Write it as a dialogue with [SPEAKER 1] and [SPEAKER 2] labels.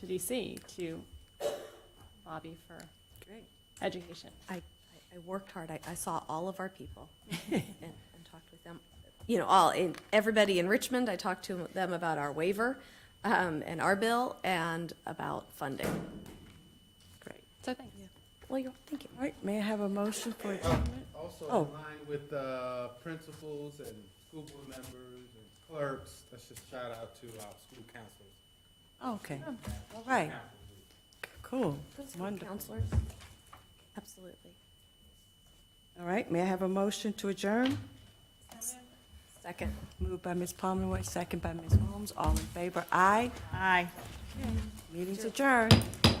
[SPEAKER 1] to DC to lobby for
[SPEAKER 2] Great.
[SPEAKER 1] education.
[SPEAKER 3] I, I- I worked hard. I, I saw all of our people and, and talked with them. You know, all, in, everybody in Richmond, I talked to them about our waiver, um, and our bill and about funding.
[SPEAKER 2] Great.
[SPEAKER 1] So thanks.
[SPEAKER 3] Well, you're thinking,
[SPEAKER 2] All right, may I have a motion for adjournment?
[SPEAKER 4] Also
[SPEAKER 2] Oh.
[SPEAKER 4] in line with uh, principals and school board members and clerks, let's just shout out to our school counselors.
[SPEAKER 2] Oh, Okay, all right, cool,
[SPEAKER 3] principal
[SPEAKER 2] wonderful.
[SPEAKER 3] counselors? Absolutely.
[SPEAKER 2] All right, may I have a motion to adjourn?
[SPEAKER 3] Second.
[SPEAKER 2] Moved by Ms. Pomeroy, second by Ms. Holmes, all in favor, aye? Aye. Meeting's adjourned.